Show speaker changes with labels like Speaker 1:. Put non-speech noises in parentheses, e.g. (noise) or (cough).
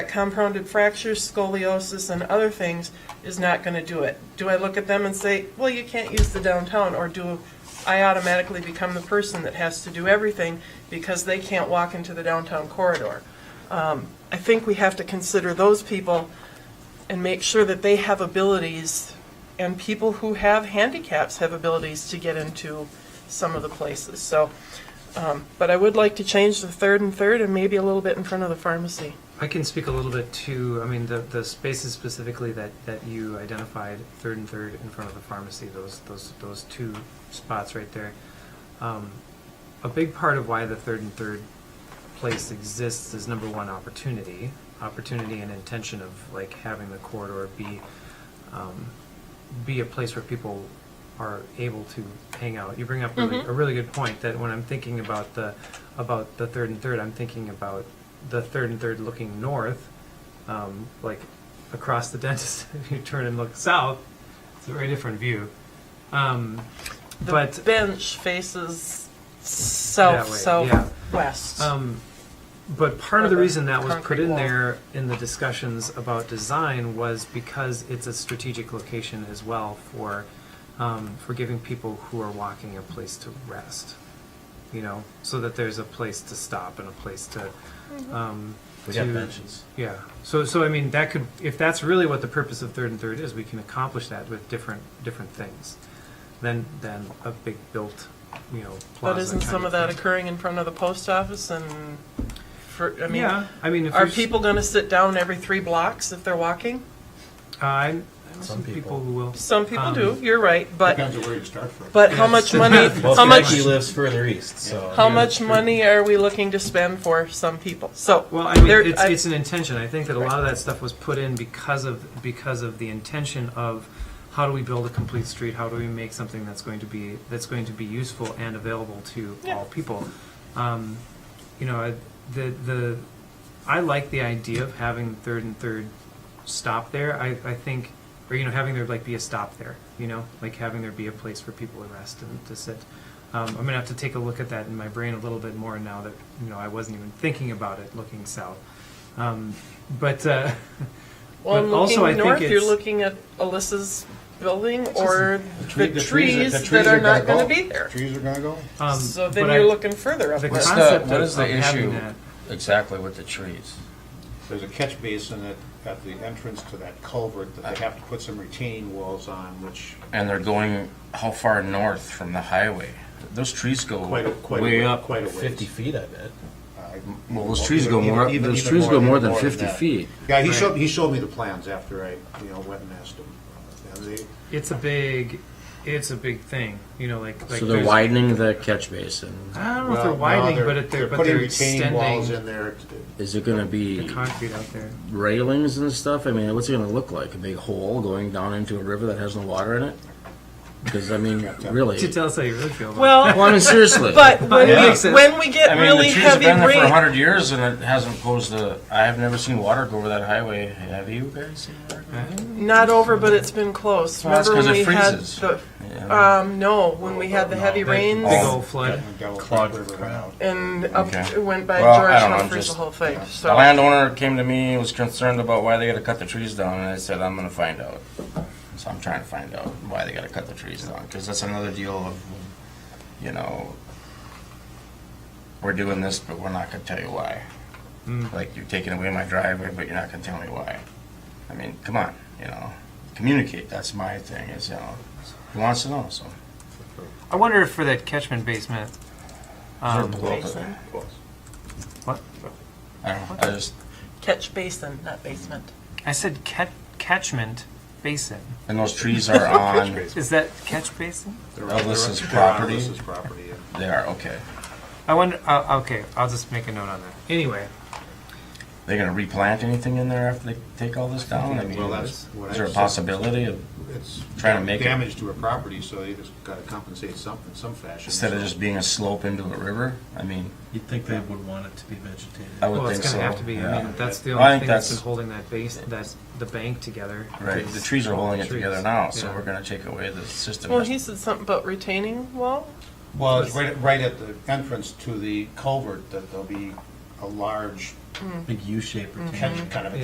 Speaker 1: compounded fractures, scoliosis, and other things is not going to do it. Do I look at them and say, well, you can't use the downtown, or do I automatically become the person that has to do everything because they can't walk into the downtown corridor? Um, I think we have to consider those people and make sure that they have abilities, and people who have handicaps have abilities to get into some of the places, so. um, But I would like to change the third and third and maybe a little bit in front of the pharmacy.
Speaker 2: I can speak a little bit to, I mean, the, the spaces specifically that, that you identified, third and third in front of the pharmacy, those, those, those two spots right there. Um, a big part of why the third and third place exists is number one, opportunity. Opportunity and intention of like having the corridor be, um, be a place where people are able to hang out. You bring up really, a really good point that when I'm thinking about the about the third and third, I'm thinking about the third and third looking north, um, like across the dentist. (laughs) if you turn and look south, it's a very different view. Um,
Speaker 1: The
Speaker 2: but
Speaker 1: bench faces
Speaker 2: That
Speaker 1: south,
Speaker 2: way, yeah.
Speaker 1: southwest.
Speaker 2: Um, but part of the
Speaker 1: Or the
Speaker 2: reason that was put
Speaker 1: concrete
Speaker 2: in
Speaker 1: wall.
Speaker 2: there in the discussions about design was because it's a strategic location as well for, um, for giving people who are walking a place to rest. You know, so that there's a place to stop and a place to,
Speaker 1: Mm-hmm.
Speaker 2: um,
Speaker 3: We got
Speaker 2: to-
Speaker 3: benches.
Speaker 2: yeah, so, so I mean, that could, if that's really what the purpose of third and third is, we can accomplish that with different, different things than, than a big built, you know, plaza.
Speaker 1: But isn't
Speaker 2: kind
Speaker 1: some of that
Speaker 2: thing.
Speaker 1: occurring in front of the post office and for, I mean,
Speaker 2: Yeah, I mean, if
Speaker 1: are
Speaker 2: you're s-
Speaker 1: people gonna sit down every three blocks if they're walking?
Speaker 2: Uh, I I know
Speaker 3: Some
Speaker 2: some people
Speaker 3: people.
Speaker 2: who will.
Speaker 1: Some people
Speaker 2: Um,
Speaker 1: do, you're right, but,
Speaker 4: Depends on where you start from.
Speaker 1: but how much money,
Speaker 4: (laughs)
Speaker 3: Well,
Speaker 1: how much,
Speaker 3: Skagit lives further east, so.
Speaker 1: how
Speaker 2: Yeah,
Speaker 1: much
Speaker 2: true.
Speaker 1: money are we looking to spend for some people? So.
Speaker 2: Well, I mean,
Speaker 1: there-
Speaker 2: it's,
Speaker 1: I-
Speaker 2: it's an intention. I think that a lot of that stuff was put in because of, because of the intention of how do we build a complete street? How do we make something that's going to be, that's going to be useful and available to
Speaker 1: Yeah.
Speaker 2: all people? Um, you know, I- the, the, I like the idea of having third and third stop there. I, I think, or, you know, having there like be a stop there, you know, like having there be a place for people to rest and to sit. Um, I'm gonna have to take a look at that in my brain a little bit more now that, you know, I wasn't even thinking about it looking south. Um, but, uh,
Speaker 1: Well,
Speaker 2: But
Speaker 1: and
Speaker 2: also, I
Speaker 1: looking
Speaker 2: think
Speaker 1: north, you're
Speaker 2: it's-
Speaker 1: looking at Alyssa's building or
Speaker 4: tree-
Speaker 1: the
Speaker 4: the trees are- the
Speaker 1: trees
Speaker 4: trees
Speaker 1: that
Speaker 4: are
Speaker 1: are not
Speaker 4: gonna
Speaker 1: gonna
Speaker 4: go.
Speaker 1: be there.
Speaker 4: Trees are gonna go?
Speaker 2: um,
Speaker 1: So
Speaker 2: but
Speaker 1: then
Speaker 2: I-
Speaker 1: you're looking further up
Speaker 2: the
Speaker 1: west.
Speaker 3: the-
Speaker 2: concept
Speaker 3: what
Speaker 2: of-
Speaker 3: is the
Speaker 2: of having
Speaker 3: issue?
Speaker 2: that-
Speaker 3: Exactly with the trees.
Speaker 4: There's a catch basin at, at the entrance to that culvert that they have to put some retaining walls on, which
Speaker 3: And they're going how far north from the highway? Those trees go
Speaker 4: Quite a- quite a
Speaker 3: way
Speaker 4: way-
Speaker 3: up.
Speaker 4: quite a ways.
Speaker 3: 50 feet, I bet.
Speaker 4: I.
Speaker 3: Well, those trees
Speaker 4: even-
Speaker 3: go more-
Speaker 4: even-
Speaker 3: those
Speaker 4: even
Speaker 3: trees go more
Speaker 4: even
Speaker 3: than 50
Speaker 4: that.
Speaker 3: feet.
Speaker 4: Yeah, he
Speaker 2: Right.
Speaker 4: showed, he showed me the plans after I, you know, went and asked him. Uh, And they,
Speaker 2: It's a big, it's a big thing, you know, like, like.
Speaker 3: So they're
Speaker 2: there's-
Speaker 3: widening the catch basin.
Speaker 2: I don't know if
Speaker 4: well,
Speaker 2: they're
Speaker 4: no,
Speaker 2: widening,
Speaker 4: they're-
Speaker 2: but if they're, but
Speaker 4: putting
Speaker 2: they're
Speaker 4: retaining
Speaker 2: extending
Speaker 4: walls in there.
Speaker 3: Is it going to
Speaker 2: the
Speaker 3: be
Speaker 2: concrete out there.
Speaker 3: railings and stuff? I mean, what's it going to look like? A big hole going down into a river that has no water in it? Because I mean, really.
Speaker 2: To tell us how you really feel. About
Speaker 1: Well,
Speaker 3: Well, I mean,
Speaker 1: (laughs)
Speaker 3: seriously. (laughs)
Speaker 1: but when
Speaker 2: Yeah.
Speaker 1: we when we get
Speaker 3: I mean,
Speaker 1: really
Speaker 3: the trees have
Speaker 1: heavy
Speaker 3: been there for
Speaker 1: rain,
Speaker 3: 100 years and it hasn't caused the. I have never seen water go over that highway. Have you guys seen water? go-
Speaker 1: Uh-huh. not over, but it's been close.
Speaker 3: Well, that's
Speaker 1: Remember
Speaker 3: 'cause
Speaker 1: when
Speaker 3: it
Speaker 1: we had
Speaker 3: freezes.
Speaker 1: the
Speaker 3: Yeah.
Speaker 1: um no when we had the heavy
Speaker 2: that
Speaker 1: rains
Speaker 2: Big old flood.
Speaker 4: Clogged river out.
Speaker 1: and up
Speaker 3: Okay.
Speaker 1: it went by
Speaker 3: Well, I
Speaker 1: George
Speaker 3: don't know,
Speaker 1: Humphreys the
Speaker 3: just-
Speaker 1: whole thing.
Speaker 3: The
Speaker 1: So
Speaker 3: landowner came to me, was concerned about why they gotta cut the trees down, and I said, I'm gonna find out. So I'm trying to find out why they gotta cut the trees down, because that's another deal of, you know, we're doing this, but we're not gonna tell you why.
Speaker 2: Mm.
Speaker 3: Like, you're taking away my driveway, but you're not gonna tell me why. I mean, come on, you know, communicate, that's my thing, is, you know, who wants to know, so.
Speaker 2: I wonder if for that catchment basement. Um,
Speaker 3: Blow up the-
Speaker 2: What?
Speaker 3: I don't, know, I just,
Speaker 1: catch basin, not basement.
Speaker 2: I said cat, catchment basin.
Speaker 3: and those trees are on
Speaker 2: Is that catch basin?
Speaker 3: Elvis's
Speaker 4: They're on
Speaker 3: property.
Speaker 4: Elvis's property, yeah.
Speaker 3: They are, okay.
Speaker 2: I wonder. Uh, okay, I'll just make a note on that. Anyway,
Speaker 3: They're gonna replant anything in there after they take all this down? I mean,
Speaker 4: Well, that's
Speaker 3: is
Speaker 4: what I
Speaker 3: there a
Speaker 4: said.
Speaker 3: possibility of,
Speaker 4: It's
Speaker 3: Trying to make it-
Speaker 4: damage to a property, so they just gotta compensate some, in some fashion.
Speaker 3: instead of
Speaker 4: so.
Speaker 3: just being a slope into a river? I mean,
Speaker 5: You'd think they would want it to be vegetated.
Speaker 3: I would
Speaker 2: well, it's
Speaker 3: think
Speaker 2: going
Speaker 3: so.
Speaker 2: to have to be. I
Speaker 3: yeah.
Speaker 2: mean, that's the
Speaker 3: Well,
Speaker 2: only
Speaker 3: I think
Speaker 2: thing that's been
Speaker 3: that's-
Speaker 2: holding that base, that the bank together.
Speaker 3: Right,
Speaker 2: is
Speaker 3: the trees are holding it
Speaker 2: trees.
Speaker 3: together now, so
Speaker 2: Yeah.
Speaker 3: we're gonna take away the system.
Speaker 1: Well, he said something about retaining wall.
Speaker 4: Well, it's right, right at the entrance to the culvert that they'll be a large
Speaker 5: big U-shaped retaining
Speaker 1: Mm-hmm.
Speaker 3: Mm-hmm.
Speaker 4: catch, kind of a